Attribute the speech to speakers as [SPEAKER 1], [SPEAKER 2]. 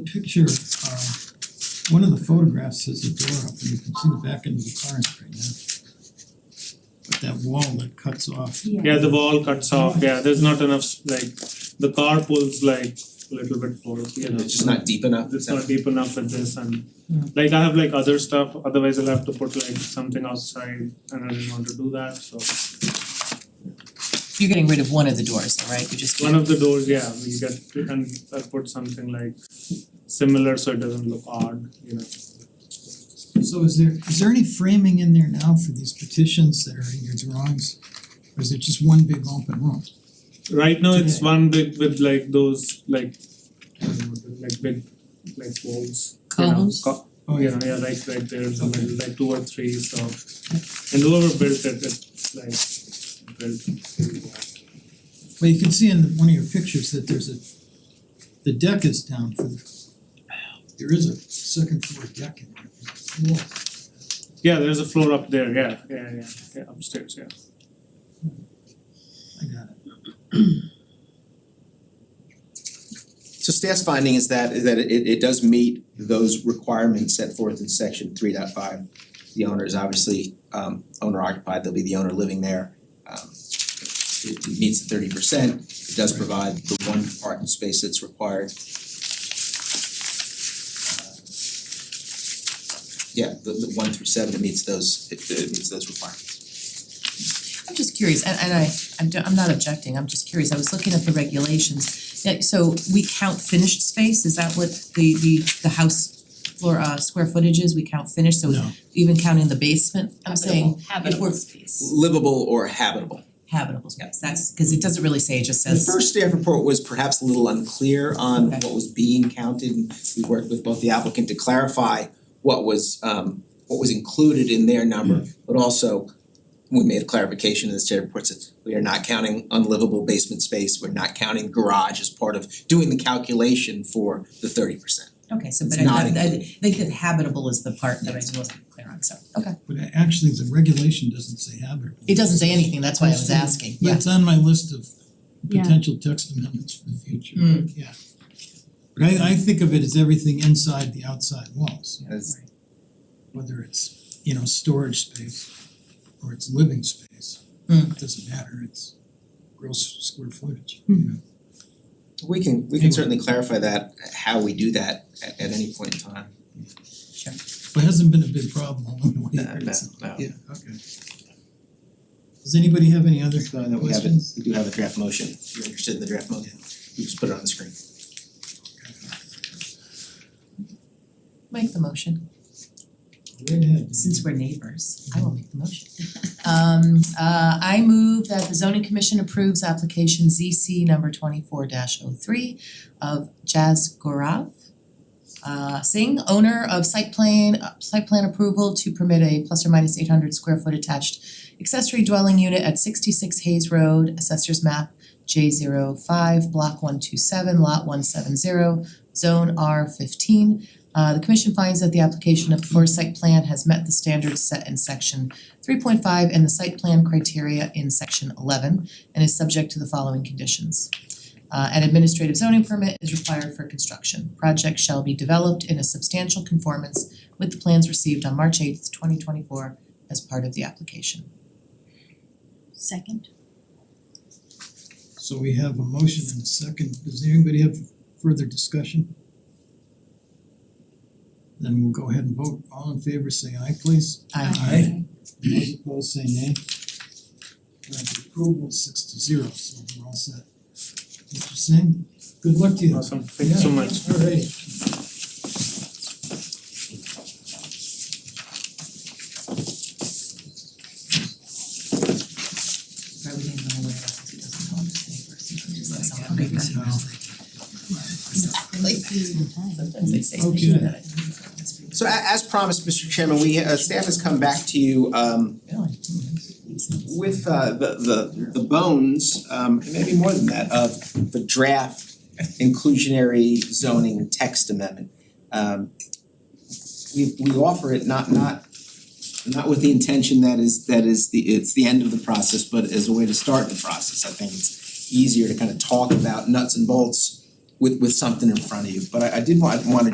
[SPEAKER 1] The picture, um, one of the photographs has a door up and you can see the back end of the car right now. But that wall that cuts off,
[SPEAKER 2] Yeah, the wall cuts off, yeah, there's not enough, s- like, the car pulls like a little bit forward, you know.
[SPEAKER 3] It's just not deep enough.
[SPEAKER 2] It's not deep enough with this and
[SPEAKER 1] Yeah.
[SPEAKER 2] like I have like other stuff, otherwise I'll have to put like something outside and I didn't want to do that, so.
[SPEAKER 4] You're getting rid of one of the doors, though, right? You're just.
[SPEAKER 2] One of the doors, yeah, we get, and I put something like similar so it doesn't look odd, you know.
[SPEAKER 1] so is there, is there any framing in there now for these petitions that are in your drawings? Or is it just one big open room?
[SPEAKER 2] Right now, it's
[SPEAKER 1] Okay.
[SPEAKER 2] one big with like those like, I don't know, like big, like walls, you know,
[SPEAKER 4] Columns?
[SPEAKER 2] co-
[SPEAKER 1] Oh,
[SPEAKER 2] you
[SPEAKER 1] yeah.
[SPEAKER 2] know, yeah, right, right there, in the
[SPEAKER 1] Okay.
[SPEAKER 2] middle, like two or three, so. And whoever built it, it's like built really well.
[SPEAKER 1] Well, you can see in one of your pictures that there's a, the deck is down for the, there is a second floor deck in there. Wall.
[SPEAKER 2] Yeah, there's a floor up there, yeah, yeah, yeah, yeah, upstairs, yeah.
[SPEAKER 1] I got it.
[SPEAKER 3] So staff's finding is that is that it it does meet those requirements set forth in section three point five. The owner is obviously um owner occupied, there'll be the owner living there. Um it it meets the thirty percent, it does provide the one parking space that's required. Yeah, the the one through seven, it meets those, it it meets those requirements.
[SPEAKER 4] I'm just curious, and and I I'm don't- I'm not objecting, I'm just curious, I was looking at the regulations. Yeah, so we count finished space, is that what the the the house floor uh square footage is, we count finished, so
[SPEAKER 1] No.
[SPEAKER 4] even counting the basement, I'm saying
[SPEAKER 5] Habitable
[SPEAKER 4] we're-
[SPEAKER 5] space.
[SPEAKER 3] Livable or habitable.
[SPEAKER 4] habitable space, that's, cause it doesn't really say, it just
[SPEAKER 3] The
[SPEAKER 4] says.
[SPEAKER 3] first staff report was perhaps a little unclear on
[SPEAKER 4] Okay.
[SPEAKER 3] what was being counted. and We worked with both the applicant to clarify what was um what was included in their number, but also we made a clarification in the staff report that we are not counting unlivable basement space, we're not counting garage as part of doing the calculation for the thirty percent.
[SPEAKER 4] Okay, so
[SPEAKER 3] It's
[SPEAKER 4] but I
[SPEAKER 3] not
[SPEAKER 4] I I
[SPEAKER 3] included.
[SPEAKER 4] think that habitable is the part that I wasn't clear on, so, okay.
[SPEAKER 1] But a- actually, the regulation doesn't say habitable.
[SPEAKER 4] It doesn't say anything, that's why I was asking,
[SPEAKER 1] But
[SPEAKER 4] yeah.
[SPEAKER 1] it's on my list of
[SPEAKER 5] Yeah.
[SPEAKER 1] potential text amendments for the future,
[SPEAKER 4] Mm.
[SPEAKER 1] yeah. But I I think of it as everything inside the outside walls,
[SPEAKER 3] That's-
[SPEAKER 4] Right.
[SPEAKER 1] whether it's, you know, storage space or it's living space.
[SPEAKER 4] Mm.
[SPEAKER 1] It doesn't matter, it's gross square footage, you know.
[SPEAKER 3] We can we can certainly clarify that, how we do that at at any point in time.
[SPEAKER 1] But it hasn't been a big problem along the way
[SPEAKER 3] No,
[SPEAKER 1] here,
[SPEAKER 3] no,
[SPEAKER 1] so-
[SPEAKER 3] no.
[SPEAKER 1] yeah, okay. Does anybody have any other
[SPEAKER 3] So
[SPEAKER 1] questions?
[SPEAKER 3] then we have it, we do have a draft motion. If you're interested in the draft motion, you just put it on the screen.
[SPEAKER 4] Make the motion,
[SPEAKER 1] Right ahead.
[SPEAKER 4] since we're neighbors, I will make the motion. Um uh I move that the zoning commission approves application ZC number twenty-four 3 of Jazz Gorav uh Singh, owner of site plan, uh, site plan approval to permit a plus or minus eight hundred square foot attached accessory dwelling unit at sixty-six Hayes Road, assessors map J 5 block one two seven, lot one seven zero, zone R fifteen, uh the commission finds that the application of for site plan has met the standards set in section three point five and the site plan criteria in section eleven and is subject to the following conditions. Uh an administrative zoning permit is required for construction. Project shall be developed in a substantial conformance with the plans received on March eighth, twenty twenty four as part of the application.
[SPEAKER 5] Second.
[SPEAKER 1] So we have a motion and a second. Does anybody have further discussion? Then we'll go ahead and vote. All in favor, say aye please.
[SPEAKER 4] I
[SPEAKER 1] Aye. Those opposed, say nay. Uh, the approval six to zero, so we're all set. Mr. Singh, good luck to you.
[SPEAKER 2] Awesome, thank you so
[SPEAKER 1] Yeah.
[SPEAKER 2] much.
[SPEAKER 1] Alright.
[SPEAKER 4] probably didn't know where else it doesn't help to say first, just like some
[SPEAKER 1] So,
[SPEAKER 4] Sometimes they say
[SPEAKER 1] Okay.
[SPEAKER 4] things that I
[SPEAKER 3] So a- as promised, Mr. Chairman, we, uh, staff has come back to you, um,
[SPEAKER 4] Really?
[SPEAKER 3] with, uh, the, the, the bones, um, and maybe more than that, of the draft inclusionary zoning text amendment. Um, we, we offer it not, not, not with the intention that is, that is the, it's the end of the process, but as a way to start the process. I think it's easier to kind of talk about nuts and bolts with with something in front of you, but I I did want wanna